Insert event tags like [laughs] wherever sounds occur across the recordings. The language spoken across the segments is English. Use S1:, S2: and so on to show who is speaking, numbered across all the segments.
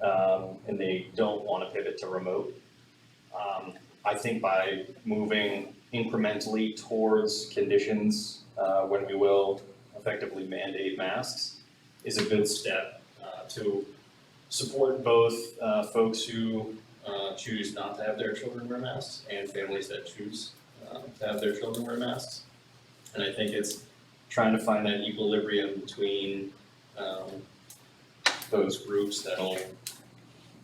S1: um, and they don't want to pivot to remote. Um, I think by moving incrementally towards conditions, uh, when we will effectively mandate masks, is a good step, uh, to support both, uh, folks who, uh, choose not to have their children wear masks and families that choose, uh, to have their children wear masks. And I think it's trying to find that equilibrium between, um, those groups that'll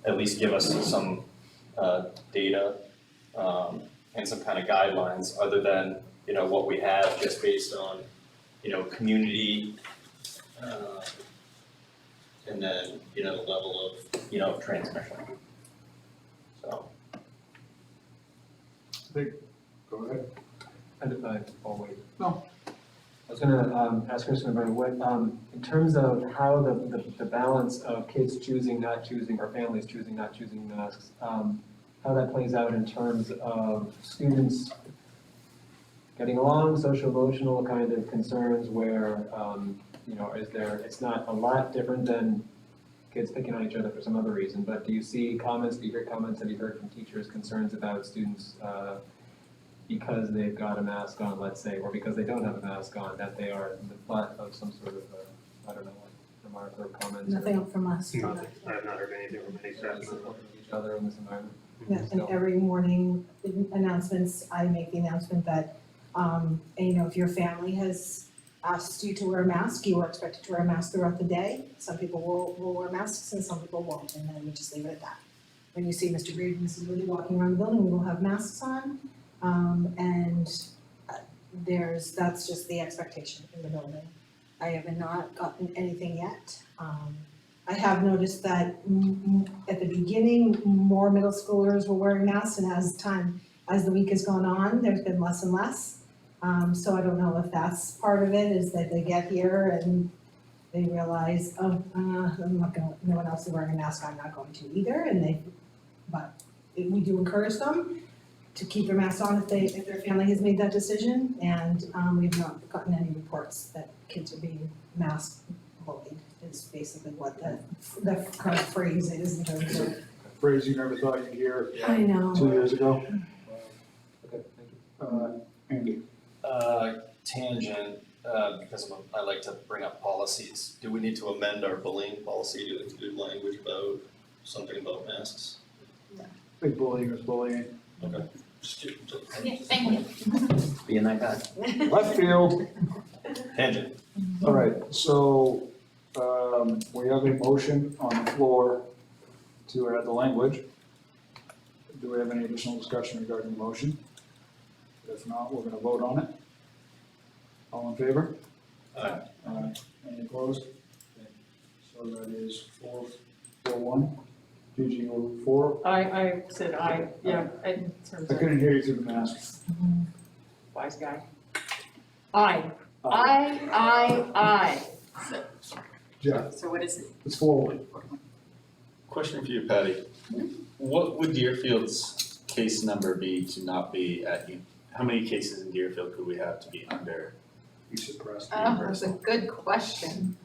S1: at least give us some, uh, data, um, and some kind of guidelines other than, you know, what we have just based on, you know, community, um, and then, you know, the level of, you know, transmission. So.
S2: Go ahead.
S3: I did I always.
S2: No.
S3: uh, I was gonna um ask a question about what um in terms of how the the the balance of kids choosing, not choosing, or families choosing, not choosing masks, um how that plays out in terms of students getting along, social emotional kind of concerns where um, you know, is there, it's not a lot different than kids picking on each other for some other reason, but do you see comments, do you hear comments, have you heard from teachers concerns about students uh because they've got a mask on, let's say, or because they don't have a mask on, that they are the butt of some sort of, uh, I don't know, like remark or comment or
S4: Nothing from us.
S5: No, I have not heard anything from any
S3: uh,
S5: staff member.
S3: support of each other in this environment.
S4: Yeah, and every morning the announcements, I make the announcement that, um, and, you know, if your family has asked you to wear a mask, you are expected to wear a mask throughout the day. Some people will, will wear masks and some people won't, and then we just leave it at that. When you see Mr. Reed and Mrs. Woody walking around the building, we will have masks on, um, and uh, there's, that's just the expectation in the building. I have not gotten anything yet, um, I have noticed that mm, mm, at the beginning, more middle schoolers were wearing masks and as time, as the week has gone on, there's been less and less. Um, so I don't know if that's part of it, is that they get here and they realize, oh, uh, I'm not going, no one else is wearing a mask, I'm not going to either, and they, but it- we do encourage them to keep their masks on if they, if their family has made that decision, and, um, we've not gotten any reports that kids are being masked bullied is basically what the, the current phrase is in terms of.
S2: A Phrase you never thought you'd hear
S4: I
S2: two
S4: know.
S2: years ago.
S3: Okay, thank you.
S2: Uh, Andy,
S1: Uh, tangent, uh, because I'm, I like to bring up policies. Do we need to amend our bullying policy to include language about something about masks?
S2: big bullying is bullying.
S1: Okay.
S4: thank you.
S1: Being that guy.
S4: [laughs]
S2: Left field.
S1: Tangent.
S2: All right, so, um, we have a motion on the floor to add the language. Do we have any additional discussion regarding the motion? If not, we're gonna vote on it. All in favor?
S1: Aye.
S2: Aye. Any opposed? Okay. So that is four, four, one. Gigi, you were four?
S6: I, I said I, yeah, in terms
S2: I
S6: of
S2: couldn't hear you through the mask.
S6: wise guy. I,
S2: Uh,
S6: I, I,
S2: Jeff,
S6: I. So what is it?
S2: it's four, one.
S7: Question for you, Patty. What would Deerfield's case number be to not be at, un- how many cases in Deerfield could we have to be under
S2: You suppressed.
S8: Oh, that's a good question.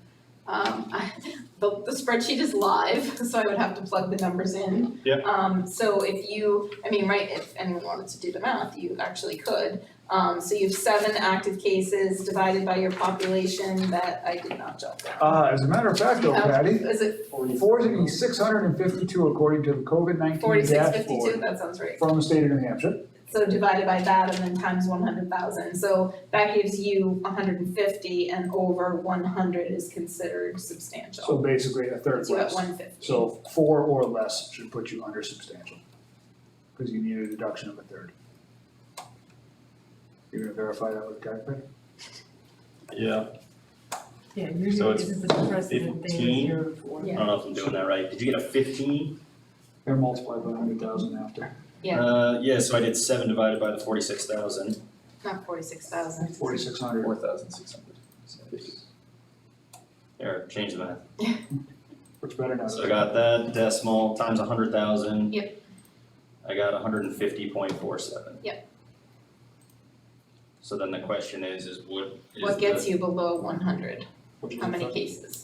S8: Um, [laughs] I, the, the spreadsheet is live, [laughs] so I would have to plug the numbers in.
S7: Yeah.
S8: Um, so if you, I mean, right, if anyone wanted to do the math, you actually could. Um, so you have seven active cases divided by your population that I did not jot down.
S2: Uh, as a matter of fact though, Patty,
S8: Is it
S2: Forty-six hundred and fifty-two according to the COVID nineteen
S8: forty-six
S2: dashboard
S8: fifty-two? That sounds right.
S2: from the state of New Hampshire.
S8: So divided by that and then times one hundred thousand, so that gives you hundred and fifty and over one hundred is considered substantial.
S2: So basically a third
S8: Puts you
S2: less.
S8: at one fifty.
S2: So four or less should put you under substantial. Cause you need a deduction of a third. You're gonna verify that with a calculator?
S1: Yeah,
S6: Yeah,
S1: So
S6: usually
S1: it's
S6: isn't the president thing, it's
S1: 15?
S6: zero four.
S1: I don't know if I'm doing that right. Did you get a fifteen?
S2: And multiply by hundred thousand after.
S8: Yeah.
S1: Uh, yeah, so I did seven divided by the forty-six thousand.
S8: Not forty-six thousand.
S2: Forty-six hundred.
S7: four thousand six hundred?
S1: Here, change the math.
S2: Looks better now.
S1: So I got that decimal times a hundred thousand.
S8: Yep.
S1: I got hundred and fifty point four seven.
S8: Yep.
S1: So then the question is, is what is
S8: What
S1: the-
S8: gets you below one hundred?
S2: Which is
S8: How many
S2: effective.
S8: cases?